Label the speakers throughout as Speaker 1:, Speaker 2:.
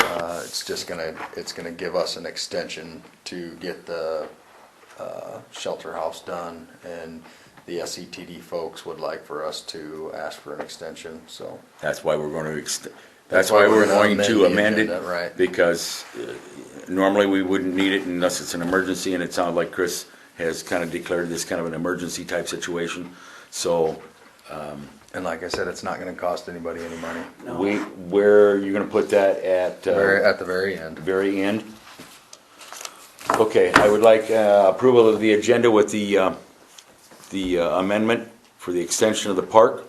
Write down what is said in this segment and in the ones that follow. Speaker 1: Uh, it's just gonna, it's gonna give us an extension to get the, uh, shelter house done. And the SETD folks would like for us to ask for an extension, so.
Speaker 2: That's why we're gonna ext- that's why we're
Speaker 1: gonna
Speaker 2: going to amend
Speaker 1: the
Speaker 2: it.
Speaker 1: agenda, Right.
Speaker 2: Because uh, normally we wouldn't need it unless it's an emergency, and it sounds like Chris has kind of declared this kind of an emergency type situation. So
Speaker 1: And like I said, it's not gonna cost anybody any money.
Speaker 2: we, where are you gonna put that at? uh,
Speaker 1: Very, at the very end.
Speaker 2: very end. Okay, I would like uh, approval of the agenda with the, uh, the uh, amendment for the extension of the park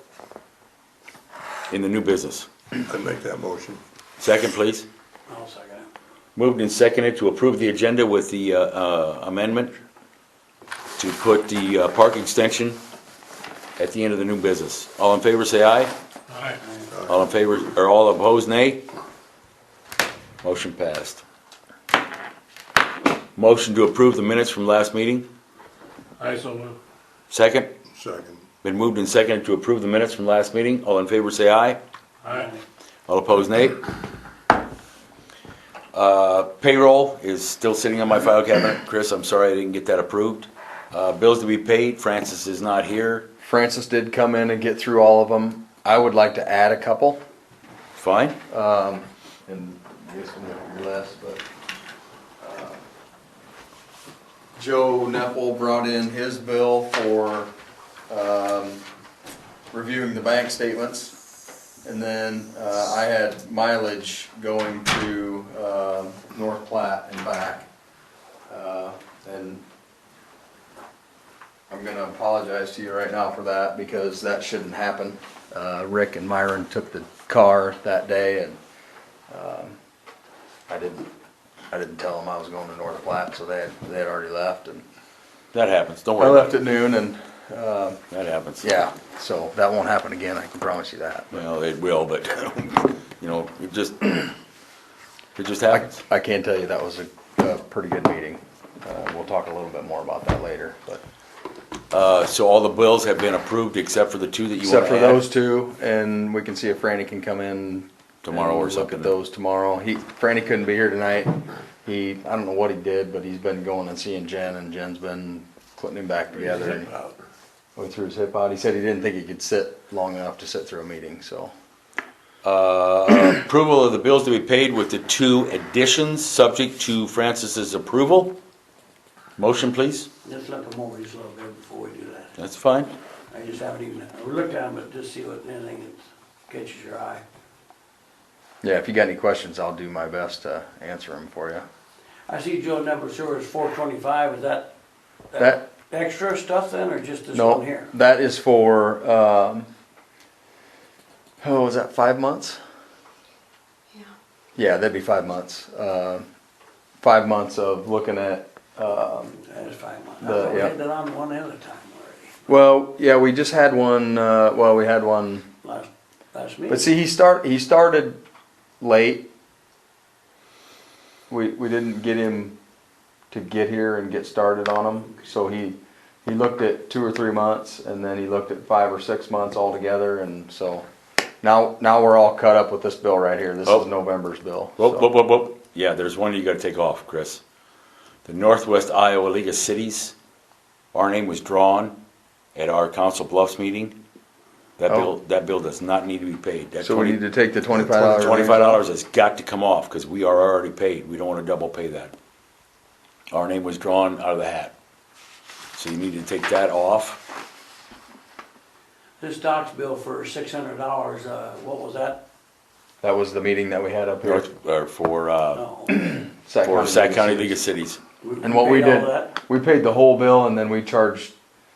Speaker 2: in the new business.
Speaker 3: I make that motion.
Speaker 2: Second, please.
Speaker 4: I'll second it.
Speaker 2: Moved and seconded to approve the agenda with the uh, uh, amendment to put the uh, park extension at the end of the new business. All in favor, say aye.
Speaker 4: Aye.
Speaker 2: All in favor, or all opposed, nay? Motion passed. Motion to approve the minutes from last meeting,
Speaker 4: Aye, so move.
Speaker 2: second.
Speaker 3: Second.
Speaker 2: Been moved and seconded to approve the minutes from last meeting. All in favor, say aye.
Speaker 4: Aye.
Speaker 2: All opposed, nay? Uh, Payroll is still sitting on my file cabinet. Chris, I'm sorry I didn't get that approved. Uh, Bills to be paid, Francis is not here.
Speaker 1: Francis did come in and get through all of them. I would like to add a couple.
Speaker 2: Fine?
Speaker 1: And this one less, but. uh, Joe Nepple brought in his bill for, um, reviewing the bank statements. And then, uh, I had mileage going to, um North Platte and back. Uh, and I'm gonna apologize to you right now for that because that shouldn't happen. Uh, Rick and Myron took the car that day and I didn't, I didn't tell them I was going to North Platte, so they had, they had already left and.
Speaker 2: That happens, don't
Speaker 1: I
Speaker 2: worry
Speaker 1: left
Speaker 2: about it.
Speaker 1: at noon and,
Speaker 2: That happens.
Speaker 1: yeah, so that won't happen again, I can promise you that.
Speaker 2: Well, it will, but, you know, it just, it just
Speaker 1: I,
Speaker 2: happens.
Speaker 1: I can tell you that was a, a pretty good meeting. Uh, we'll talk a little bit more about that later, but.
Speaker 2: Uh, so all the bills have been approved except for the two that you
Speaker 1: Except
Speaker 2: want to
Speaker 1: for
Speaker 2: add?
Speaker 1: those two, and we can see if Franny can come in.
Speaker 2: Tomorrow
Speaker 1: and
Speaker 2: or
Speaker 1: Look
Speaker 2: something.
Speaker 1: at those tomorrow. He, Franny couldn't be here tonight. He, I don't know what he did, but he's been going and seeing Jen, and Jen's been putting him back together. and- Oh, he threw his hip out. He said he didn't think he could sit long enough to sit through a meeting, so.
Speaker 2: Uh, Approval of the bills to be paid with the two additions, subject to Francis's approval. Motion, please.
Speaker 4: Just look them over just a little bit before we do that.
Speaker 2: That's fine.
Speaker 4: I just haven't even, I looked at them, but just see what, anything that catches your eye.
Speaker 1: Yeah, if you got any questions, I'll do my best to answer them for you.
Speaker 4: I see Joe number sewer is four twenty-five, is that?
Speaker 1: That-
Speaker 4: Extra stuff then, or just this one
Speaker 1: No,
Speaker 4: here?
Speaker 1: that is for, um, oh, was that five months?
Speaker 5: Yeah.
Speaker 1: Yeah, that'd be five months. Uh, five months of looking at,
Speaker 4: That is fine. I
Speaker 1: The-
Speaker 4: thought we
Speaker 1: yeah.
Speaker 4: had that on one other time already,
Speaker 1: well, yeah, we just had one, uh, well, we had one,
Speaker 4: last, last meeting.
Speaker 1: but see, he start, he started late. We, we didn't get him to get here and get started on them, so he, he looked at two or three months, and then he looked at five or six months altogether, and so now, now we're all cut up with this bill right here. This
Speaker 2: Oh.
Speaker 1: is November's bill.
Speaker 2: Whoop,
Speaker 1: so.
Speaker 2: whoop, whoop, whoop. Yeah, there's one you gotta take off, Chris. The Northwest Iowa League of Cities, our name was drawn at our Council Bluffs meeting. That
Speaker 1: Oh.
Speaker 2: bill, that bill does not need to be paid. That
Speaker 1: So we
Speaker 2: 20
Speaker 1: need to take the twenty-five dollars.
Speaker 2: Twenty-five dollars has got to come off, because we are already paid, we don't wanna double pay that. Our name was drawn out of the hat. So you need to take that off,
Speaker 4: This doc's bill for six hundred dollars, uh, what was that?
Speaker 1: That was the meeting that we had up here.
Speaker 2: North, or for, uh,
Speaker 4: No.
Speaker 1: Sac
Speaker 2: for
Speaker 1: County
Speaker 2: Sac County
Speaker 1: League
Speaker 2: League
Speaker 1: of
Speaker 2: of Cities.
Speaker 1: And what we
Speaker 4: paid all
Speaker 1: did-
Speaker 4: that?
Speaker 1: Cities. We paid the whole bill and then we charged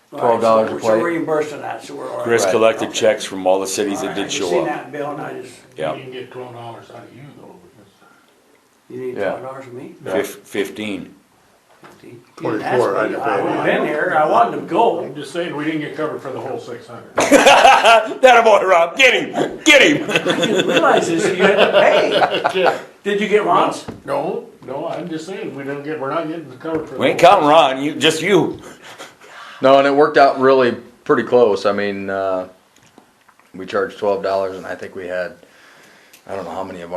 Speaker 1: twelve dollars a
Speaker 4: Alright, so we're- So
Speaker 1: plate.
Speaker 4: reimbursing that, so we're all right.
Speaker 2: Chris
Speaker 1: Right.
Speaker 2: collected checks from all the cities that
Speaker 4: Alright,
Speaker 2: did
Speaker 4: I
Speaker 2: show
Speaker 4: Seen
Speaker 2: up.
Speaker 4: that bill and I just,
Speaker 6: You
Speaker 2: Yeah,
Speaker 6: can get twelve dollars out of you though, because
Speaker 4: you need
Speaker 1: Yeah.
Speaker 4: twelve dollars from me?
Speaker 2: Fif- fifteen.
Speaker 4: You didn't
Speaker 3: Twenty-four,
Speaker 4: ask me.
Speaker 3: I didn't pay
Speaker 4: I would've
Speaker 3: mine.
Speaker 4: been here, I wanted to
Speaker 6: I'm
Speaker 4: go.
Speaker 6: just saying, we didn't get covered for the whole six hundred.
Speaker 2: That boy, Rob, get him, get him.
Speaker 4: I didn't realize this, you had to pay. Did you get Ron's?
Speaker 6: No, no, I'm just saying, we didn't get, we're not getting covered for. the
Speaker 2: We ain't
Speaker 6: whole-
Speaker 2: counting Ron, you, just you.
Speaker 1: No, and it worked out really pretty close. I mean, uh, we charged twelve dollars and I think we had, I don't know how many of